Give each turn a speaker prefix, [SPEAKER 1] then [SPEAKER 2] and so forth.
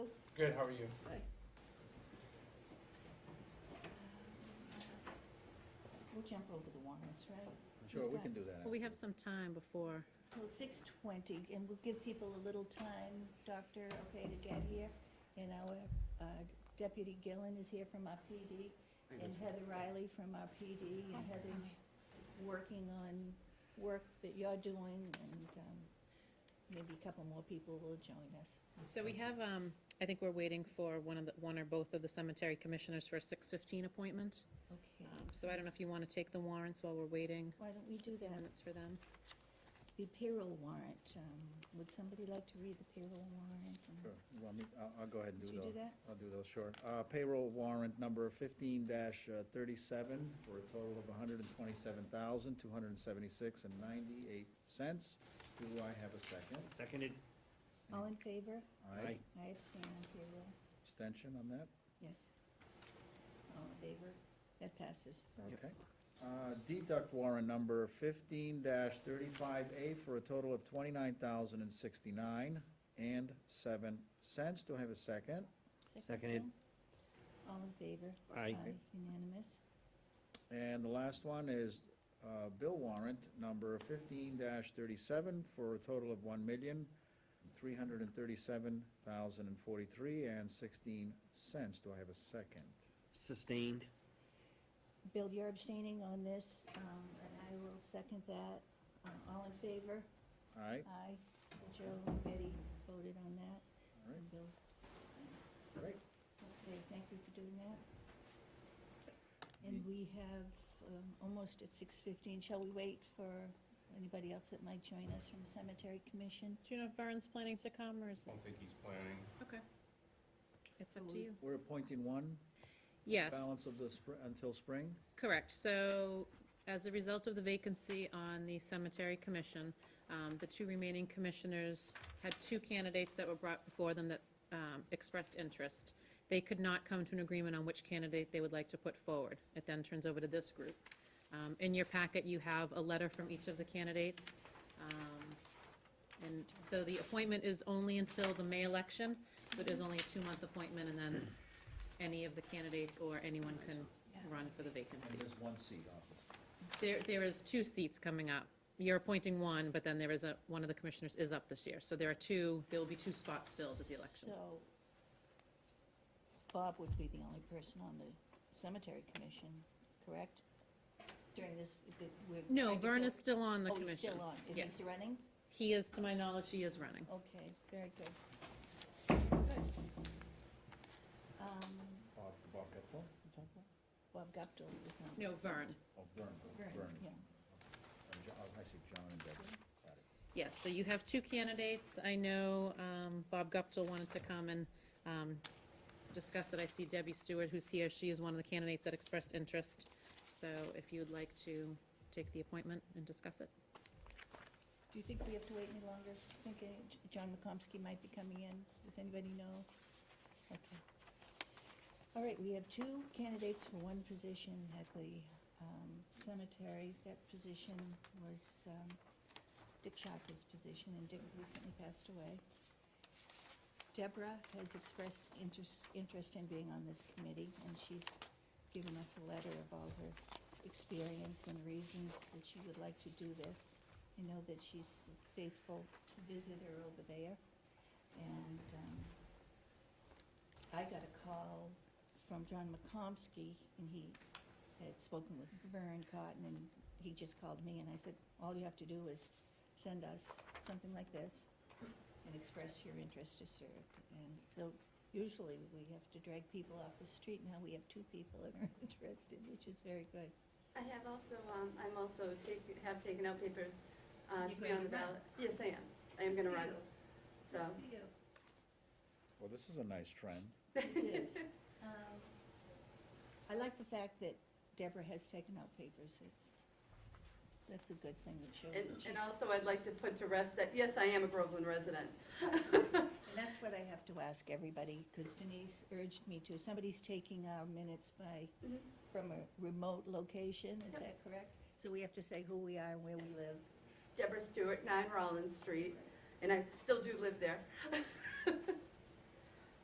[SPEAKER 1] Good, how are you?
[SPEAKER 2] We'll jump over the warrants, right?
[SPEAKER 3] Sure, we can do that.
[SPEAKER 4] Well, we have some time before,
[SPEAKER 2] Well, six twenty, and we'll give people a little time, Doctor, okay, to get here. And our uh, Deputy Gillen is here from our PD, and Heather Riley from our PD, and Heather's working on work that you're doing, and um, maybe a couple more people will join us.
[SPEAKER 4] so we have, um, I think we're waiting for one of the, one or both of the cemetery commissioners for a six fifteen appointment.
[SPEAKER 2] Okay,
[SPEAKER 4] Um, So I don't know if you want to take the warrants while we're waiting,
[SPEAKER 2] why don't we do
[SPEAKER 4] the
[SPEAKER 2] that?
[SPEAKER 4] minutes for them.
[SPEAKER 2] The payroll warrant, um, would somebody like to read the payroll warrant? and-
[SPEAKER 3] Sure. You want me, I'll, I'll go ahead and
[SPEAKER 2] Would
[SPEAKER 3] do
[SPEAKER 2] you
[SPEAKER 3] those.
[SPEAKER 2] do that?
[SPEAKER 3] I'll do those, sure. Uh, payroll warrant number fifteen uh, thirty-seven for a total of hundred and twenty-seven thousand, two hundred and seventy-six and ninety-eight cents. Do I have a second?
[SPEAKER 5] Seconded.
[SPEAKER 2] All in favor?
[SPEAKER 3] Aye.
[SPEAKER 2] I abstain on payroll.
[SPEAKER 3] Extension on that?
[SPEAKER 2] Yes. All in favor? That passes.
[SPEAKER 3] Okay. Uh, Deduct warrant number fifteen thirty-five A for a total of twenty-nine thousand and sixty-nine and seven cents. Do I have a second?
[SPEAKER 5] Seconded.
[SPEAKER 2] round. All in favor?
[SPEAKER 5] Aye.
[SPEAKER 2] Unanimous.
[SPEAKER 3] And the last one is uh, bill warrant number fifteen thirty-seven for a total of one million, three hundred and thirty-seven thousand and forty-three and sixteen cents. Do I have a second?
[SPEAKER 5] Sustained.
[SPEAKER 2] Bill, you're abstaining on this, um, and I will second that. Um, All in favor?
[SPEAKER 3] All right,
[SPEAKER 2] Aye. So Joe and Betty voted on that.
[SPEAKER 3] all right,
[SPEAKER 2] And Bill,
[SPEAKER 3] great.
[SPEAKER 2] okay, thank you for doing that. And we have um, almost at 6:15. Shall we wait for anybody else that might join us from the Cemetery Commission?
[SPEAKER 4] Do you know if Vern's planning to come, or is,
[SPEAKER 1] Don't think he's planning.
[SPEAKER 4] okay. It's
[SPEAKER 2] So
[SPEAKER 4] up to
[SPEAKER 2] we-
[SPEAKER 4] you.
[SPEAKER 3] We're appointing one
[SPEAKER 4] Yes.
[SPEAKER 3] balance of the, spr- until spring?
[SPEAKER 4] Correct. So as a result of the vacancy on the cemetery commission, um, the two remaining commissioners had two candidates that were brought before them that um, expressed interest. They could not come to an agreement on which candidate they would like to put forward. It then turns over to this group. Um, In your packet, you have a letter from each of the candidates. Um, And so the appointment is only until the May election, so it is only a two-month appointment, and then any of the candidates or anyone can run for the vacancy.
[SPEAKER 3] And there's one seat, obviously.
[SPEAKER 4] There, there is two seats coming up. You're appointing one, but then there is a, one of the commissioners is up this year. So there are two, there will be two spots filled at the election.
[SPEAKER 2] So Bob would be the only person on the cemetery commission, correct? During this, the- we're.
[SPEAKER 4] No,
[SPEAKER 2] trying to
[SPEAKER 4] Vern
[SPEAKER 2] fill-
[SPEAKER 4] is still on the
[SPEAKER 2] Oh, he's
[SPEAKER 4] commission.
[SPEAKER 2] still on, and
[SPEAKER 4] Yes.
[SPEAKER 2] he's running?
[SPEAKER 4] He is, to my knowledge, he is running.
[SPEAKER 2] Okay, very good. Good. Um,
[SPEAKER 3] Bob, Bob Gepfall, you talking about?
[SPEAKER 2] Bob Guptill is on.
[SPEAKER 4] No,
[SPEAKER 2] the
[SPEAKER 4] Vern.
[SPEAKER 3] Oh, Byrne,
[SPEAKER 2] Vern,
[SPEAKER 3] Byrne.
[SPEAKER 2] yeah.
[SPEAKER 3] And Jo- oh, I see John and Debbie, got it.
[SPEAKER 4] Yes, so you have two candidates. I know um, Bob Guptill wanted to come and um, discuss it. I see Debbie Stewart, who's here. She is one of the candidates that expressed interest. So if you'd like to take the appointment and discuss it.
[SPEAKER 2] Do you think we have to wait any longer? I Think uh, J- John McComsky might be coming in. Does anybody know? Okay. All right, we have two candidates for one position at the um, cemetery. That position was um, Dick Shaka's position, and Dick recently passed away. Deborah has expressed interest, interest in being on this committee, and she's given us a letter of all her experience and reasons that she would like to do this. I know that she's a faithful visitor over there, and, um, I got a call from John McComsky, and he had spoken with Vern Cotton, and he just called me, and I said, all you have to do is send us something like this and express your interest to serve. And so usually we have to drag people off the street. Now we have two people that are interested, which is very good.
[SPEAKER 6] I have also, um, I'm also take, have taken out papers, uh,
[SPEAKER 2] You
[SPEAKER 6] to be
[SPEAKER 2] going
[SPEAKER 6] on the
[SPEAKER 2] to run?
[SPEAKER 6] ballot. Yes, I am. I am gonna run, so.
[SPEAKER 3] Well, this is a nice trend.
[SPEAKER 2] This is, um, I like the fact that Deborah has taken out papers. It- That's a good thing that shows
[SPEAKER 6] And,
[SPEAKER 2] that she's.
[SPEAKER 6] and also I'd like to put to rest that, yes, I am a Groveland resident.
[SPEAKER 2] And that's what I have to ask everybody, because Denise urged me to. Somebody's taking our minutes by,
[SPEAKER 6] Mhm.
[SPEAKER 2] from a remote location, is that
[SPEAKER 6] Yes.
[SPEAKER 2] correct? So we have to say who we are and where we live.
[SPEAKER 6] Deborah Stewart, nine Rollins Street, and I still do live there.